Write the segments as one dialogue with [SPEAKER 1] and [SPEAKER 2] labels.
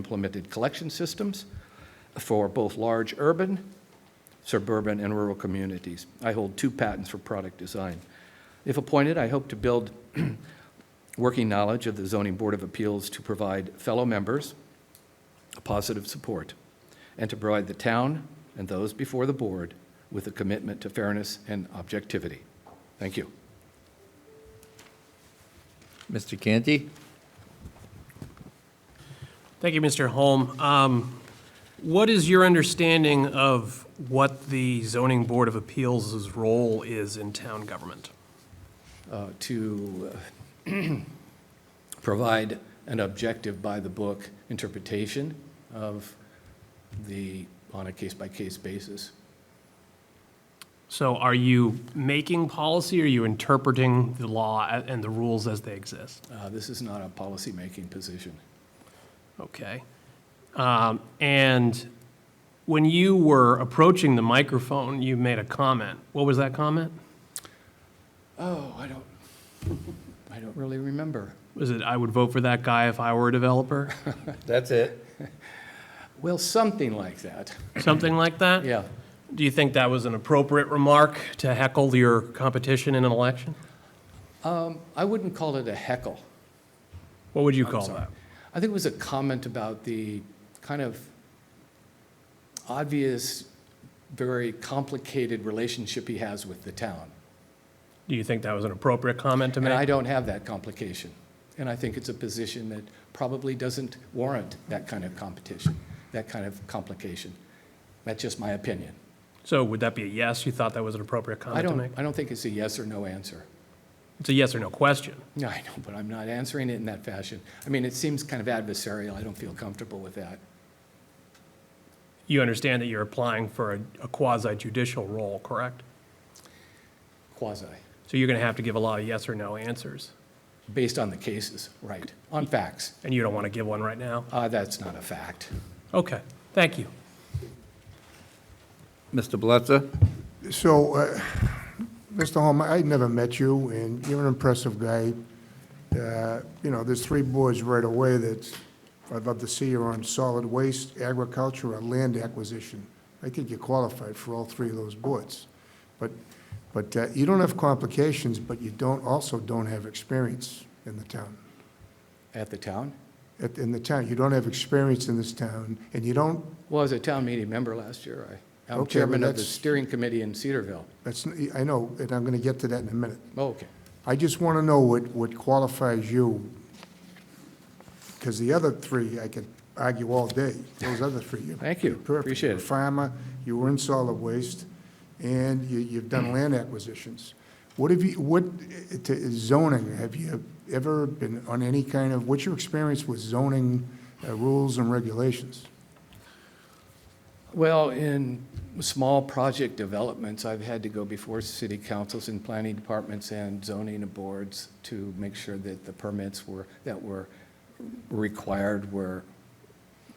[SPEAKER 1] implemented collection systems for both large urban, suburban, and rural communities. I hold two patents for product design. If appointed, I hope to build working knowledge of the Zoning Board of Appeals to provide fellow members positive support and to provide the town and those before the board with a commitment to fairness and objectivity. Thank you.
[SPEAKER 2] Mr. Canty?
[SPEAKER 3] Thank you, Mr. Holm. Um, What is your understanding of what the zoning board of appeals' role is in town government?
[SPEAKER 1] uh, to uh, provide an objective by-the-book interpretation of the, on a case-by-case basis.
[SPEAKER 3] So are you making policy, or are you interpreting the law a- and the rules as they exist?
[SPEAKER 1] Uh, This is not a policymaking position.
[SPEAKER 3] Okay. Um, And when you were approaching the microphone, you made a comment. What was that comment?
[SPEAKER 1] Oh, I don't, I don't really remember.
[SPEAKER 3] Was it, "I would vote for that guy if I were a developer"?
[SPEAKER 2] That's it.
[SPEAKER 1] Well, something like that,
[SPEAKER 3] Something like that?
[SPEAKER 1] yeah.
[SPEAKER 3] Do you think that was an appropriate remark to heckle your competition in an election?
[SPEAKER 1] Um, I wouldn't call it a heckle.
[SPEAKER 3] What would you call
[SPEAKER 1] sorry.
[SPEAKER 3] that?
[SPEAKER 1] I think it was a comment about the kind of obvious, very complicated relationship he has with the town.
[SPEAKER 3] Do you think that was an appropriate comment to
[SPEAKER 1] And I
[SPEAKER 3] make?
[SPEAKER 1] don't have that complication. And I think it's a position that probably doesn't warrant that kind of competition, that kind of complication. That's just my opinion.
[SPEAKER 3] So would that be a yes? You thought that was an appropriate
[SPEAKER 1] I
[SPEAKER 3] comment to
[SPEAKER 1] don't,
[SPEAKER 3] make?
[SPEAKER 1] I don't think it's a yes or no answer.
[SPEAKER 3] It's a yes or no question.
[SPEAKER 1] No, I know, but I'm not answering it in that fashion. I mean, it seems kind of adversarial. I don't feel comfortable with that.
[SPEAKER 3] You understand that you're applying for a a quasi-judicial role, correct?
[SPEAKER 1] Quasi,
[SPEAKER 3] So you're going to have to give a lot of yes or no answers,
[SPEAKER 1] based on the cases, right, on facts.
[SPEAKER 3] and you don't want to give one right now?
[SPEAKER 1] Uh, that's not a fact.
[SPEAKER 3] Okay, thank you.
[SPEAKER 2] Mr. Blitzer?
[SPEAKER 4] So, uh, Mr. Holm, I never met you, and you're an impressive guy. Uh, You know, there's three boards right away that I'd love to see you on, solid waste, agriculture, or land acquisition. I think you're qualified for all three of those boards. But, but uh, you don't have complications, but you don't, also don't have experience in the town.
[SPEAKER 1] At the town?
[SPEAKER 4] At- In the town, you don't have experience in this town, and you don't,
[SPEAKER 1] Well, as a town meeting member last year, I, I'm
[SPEAKER 4] Okay, well,
[SPEAKER 1] chairman of the
[SPEAKER 4] that's-
[SPEAKER 1] steering committee in Cedarville.
[SPEAKER 4] that's, I know, and I'm going to get to that in a minute.
[SPEAKER 1] Oh, Okay.
[SPEAKER 4] I just want to know what, what qualifies you, because the other three, I could argue all day, those other three. you're
[SPEAKER 1] Thank you.
[SPEAKER 4] perfect.
[SPEAKER 1] Appreciate
[SPEAKER 4] You're a
[SPEAKER 1] it.
[SPEAKER 4] Farmer, you were in solid waste, and you, you've done land acquisitions. What have you, what, eh, to zoning, have you ever been on any kind of, what's your experience with zoning uh, rules and regulations?
[SPEAKER 1] Well, in small project developments, I've had to go before city councils and planning departments and zoning boards to make sure that the permits were, that were required were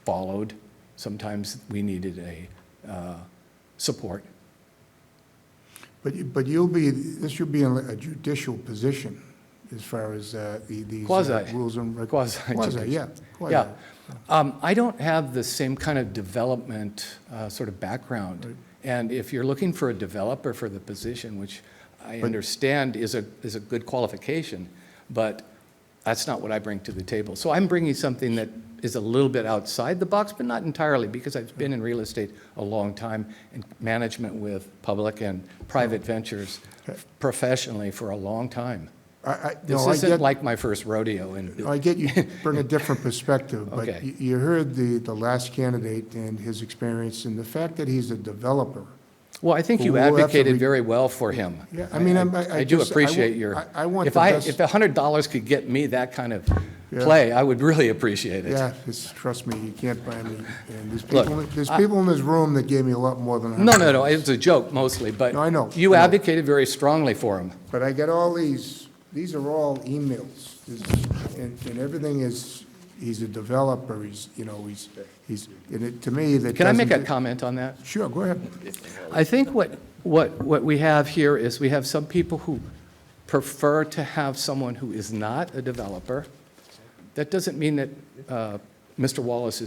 [SPEAKER 1] followed. Sometimes we needed a uh, support.
[SPEAKER 4] But, you- but you'll be, this will be in a judicial position as far as uh, the, these uh,
[SPEAKER 1] Quasi.
[SPEAKER 4] rules and reg-
[SPEAKER 1] Quasi
[SPEAKER 4] Quasi, yeah. quasi.
[SPEAKER 1] Yeah. Um, I don't have the same kind of development uh, sort of background. And if you're looking for a developer for the position, which I understand is a, is a good qualification, but that's not what I bring to the table. So I'm bringing something that is a little bit outside the box, but not entirely, because I've been in real estate a long time and management with public and private
[SPEAKER 4] Oh.
[SPEAKER 1] ventures professionally for a long time.
[SPEAKER 4] I, I,
[SPEAKER 1] This
[SPEAKER 4] no, I
[SPEAKER 1] isn't
[SPEAKER 4] get,
[SPEAKER 1] like my first rodeo in
[SPEAKER 4] I get you bring a different perspective,
[SPEAKER 1] Okay.
[SPEAKER 4] but you, you heard the, the last candidate and his experience, and the fact that he's a developer.
[SPEAKER 1] Well, I think you
[SPEAKER 4] We'll have to
[SPEAKER 1] advocated
[SPEAKER 4] re-
[SPEAKER 1] very well for him.
[SPEAKER 4] Yeah, I mean, I'm- I- I
[SPEAKER 1] I do
[SPEAKER 4] just- I
[SPEAKER 1] appreciate
[SPEAKER 4] wa-
[SPEAKER 1] your.
[SPEAKER 4] I- I want
[SPEAKER 1] If
[SPEAKER 4] the
[SPEAKER 1] I,
[SPEAKER 4] best-
[SPEAKER 1] if $100 could get me that kind of
[SPEAKER 4] Yeah.
[SPEAKER 1] play, I would really appreciate it.
[SPEAKER 4] Yeah, it's, trust me, you can't buy me. And there's
[SPEAKER 1] Look,
[SPEAKER 4] people, there's people in this room that gave me a lot more than I.
[SPEAKER 1] No, no, no, it's a joke mostly, but.
[SPEAKER 4] No, I know,
[SPEAKER 1] You
[SPEAKER 4] I know.
[SPEAKER 1] advocated very strongly for him.
[SPEAKER 4] But I got all these, these are all emails, This- and, and everything is, he's a developer, he's, you know, he's, he's, and it, to me, that
[SPEAKER 1] Can I make a
[SPEAKER 4] doesn't-
[SPEAKER 1] comment on that?
[SPEAKER 4] Sure, go ahead.
[SPEAKER 1] I think what, what, what we have here is we have some people who prefer to have someone who is not a developer. That doesn't mean that uh, Mr. Wallace is.